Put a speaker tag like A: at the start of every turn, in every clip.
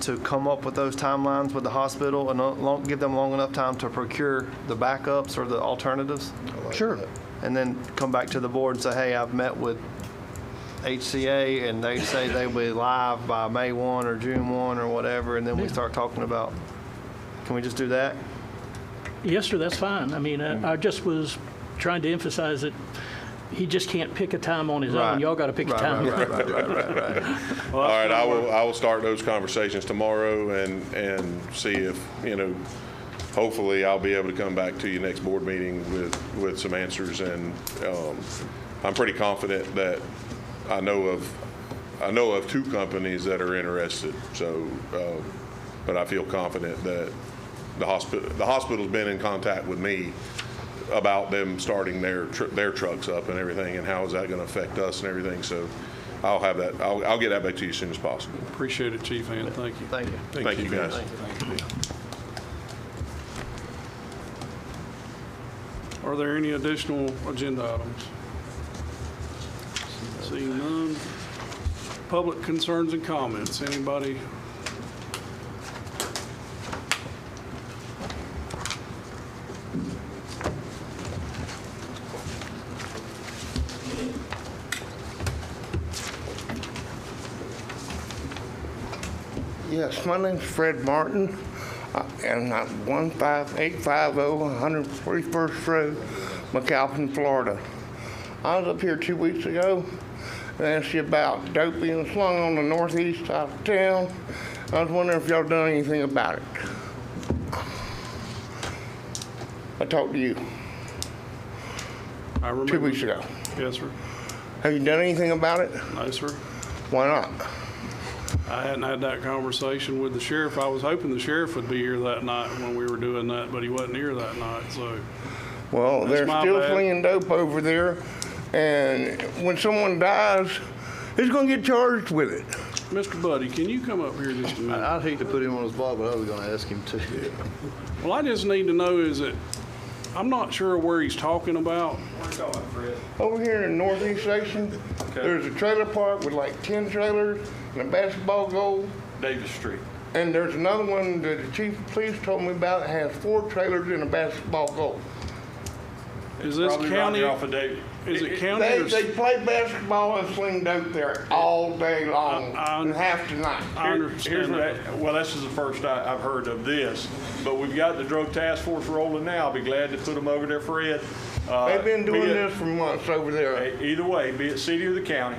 A: to come up with those timelines with the hospital and uh, long- give them long enough time to procure the backups or the alternatives?
B: Sure.
A: And then come back to the board and say, hey, I've met with HCA and they say they will be live by May 1 or June 1 or whatever, and then we start talking about, can we just do that?
C: Yes, sir, that's fine. I mean,
A: Mm.
C: I I just was trying to emphasize that he just can't pick a time on his own.
A: Right.
C: Y'all got to pick a
A: Right,
C: time.
A: Right, right, right, right, right, right.
D: All right, I will, I will start those conversations tomorrow and, and see if, you know, hopefully I'll be able to come back to you next board meeting with, with some answers and, um, I'm pretty confident that I know of, I know of two companies that are interested, so, um, but I feel confident that the hospital, the hospital's been in contact with me about them starting their, tr- their trucks up and everything, and how is that going to affect us and everything, so I'll have that, I'll, I'll get that back to you as soon as possible.
E: Appreciate it, Chief Ann, thank you.
A: Thank you.
D: Thank you, guys.
E: Are there any additional agenda items? Seeing none. Public concerns and comments, anybody?
B: Yes, my name's Fred Martin, uh, and I'm 15850 141st Road, McAlpin, Florida. I was up here two weeks ago and asked you about dope being slung on the northeast side of town. I was wondering if y'all done anything about it. I talked to you
E: I
B: two
E: remember.
B: weeks ago.
E: Yes, sir.
B: Have you done anything about it?
E: No, sir.
B: Why not?
E: I hadn't had that conversation with the sheriff. I was hoping the sheriff would be here that night when we were doing that, but he wasn't here that night, so.
B: Well, they're
E: my
B: still
E: bad.
B: flinging dope over there, and when someone dies, who's going to get charged with it?
E: Mr. Buddy, can you come up here just a minute?
F: I'd hate to put him on the spot, but I was gonna ask him to.
E: Well, I just need to know is that, I'm not sure where he's talking about.
B: Over here in the northeast section, there's a trailer park with like 10 trailers and a basketball goal.
G: Davis Street.
B: And there's another one that the chief of police told me about that has four trailers and a basketball goal.
E: Is this
G: Probably right
E: county?
G: there off of Davis.
E: Is it county
B: They,
E: or?
B: they play basketball and sling dope there all day long
E: I- I-
B: and half the night.
E: I
G: Here- here's
E: understand
G: what
E: that.
G: I- Well, this is the first I, I've heard of this, but we've got the drug task force rolling now. I'll be glad to put them over there, Fred. Uh,
B: They've been doing
G: be it-
B: this for months over there.
G: e- Either way, be it city or the county,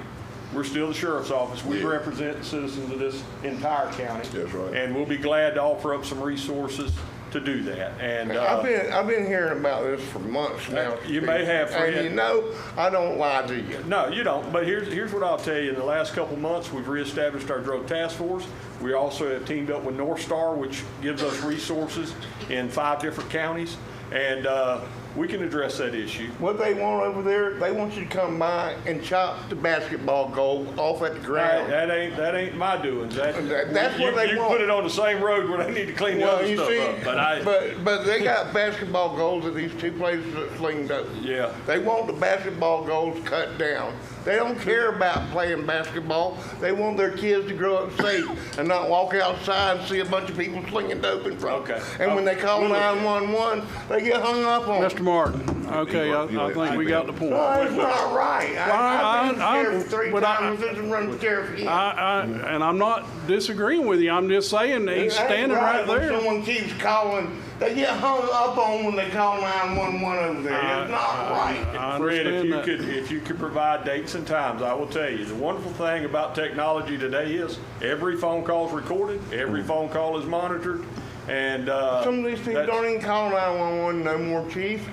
G: we're still the sheriff's office. We represent the citizens of this entire county.
D: That's right.
G: And we'll be glad to offer up some resources to do that. And,
B: I've
G: uh,
B: been, I've been hearing about this for months now.
G: you may have,
B: And you
G: Fred.
B: know, I don't lie to you.
G: no, you don't, but here's, here's what I'll tell you. In the last couple months, we've reestablished our drug task force. We also have teamed up with North Star, which gives us resources in five different counties. And, uh, we can address that issue.
B: What they want over there, they want you to come by and chop the basketball goal off at the
G: That,
B: ground.
G: that ain't, that ain't my doings.
B: That- that's
G: you-
B: what they
G: you
B: want.
G: put it on the same road where they need to clean the
B: Well,
G: other
B: you
G: stuff
B: see,
G: up, but I.
B: but, but they got basketball goals at these two places that fling dope.
G: Yeah.
B: They want the basketball goals cut down. They don't care about playing basketball. They want their kids to grow up safe and not walk outside and see a bunch of people slinging dope in front. of them.
G: Okay. Uh,
B: And when they call 911, they get hung up on.
E: Mr. Martin, okay, I, I think we got the point. I,
B: No, it's not right. I, I've been
E: Well, I- I-
B: sheriff three
E: but I-
B: times, didn't run for sheriff again.
E: I, and I'm not disagreeing with you, I'm just saying that he's
B: It ain't
E: standing right
B: when
E: there.
B: Someone keeps calling, they get hung up on when they call 911 over there.
E: Uh,
B: It's not right.
E: I
G: Fred, if
E: understand
G: you
E: that.
G: could, if you could provide dates and times, I will tell you, the wonderful thing about technology today is every phone call is recorded, every phone call is monitored, and, uh.
B: Some of these people
G: that's-
B: don't even call 911 no more, chief.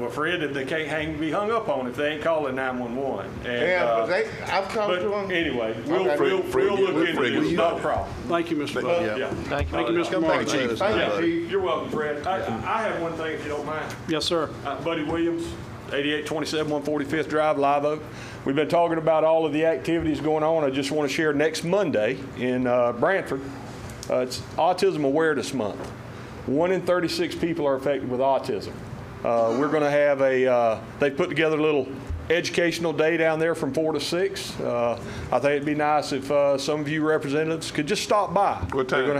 G: Well, Fred, if they can't hang, be hung up on if they ain't calling nine-one-one, and,
B: Yeah,
G: uh,
B: but they, I've talked to
G: But
B: them.
G: anyway, we'll,
B: Okay.
G: we'll,
D: Fred,
G: we'll
D: Fred,
G: look into
D: Fred,
G: this,
D: you-
G: no problem.
E: Thank you, Mr. Bud.
G: Yeah.
C: Thank you.
E: Thank you, Mr.
F: Come back and let
E: Martin.
F: us know.
B: Thank
G: Yeah,
B: you, chief.
G: You're welcome, Fred. I, I have one thing, if you don't mind.
E: Yes, sir.
G: Uh, Buddy Williams, 8827 145th Drive, Live Oak. We've been talking about all of the activities going on. I just want to share next Monday in uh, Branford, uh, it's Autism Awareness Month. One in 36 people are affected with autism. Uh, We're going to have a, uh, they put together a little educational day down there from 4 to 6. Uh, I think it'd be nice if uh, some of you representatives could just stop by.
D: What time?
G: They're gonna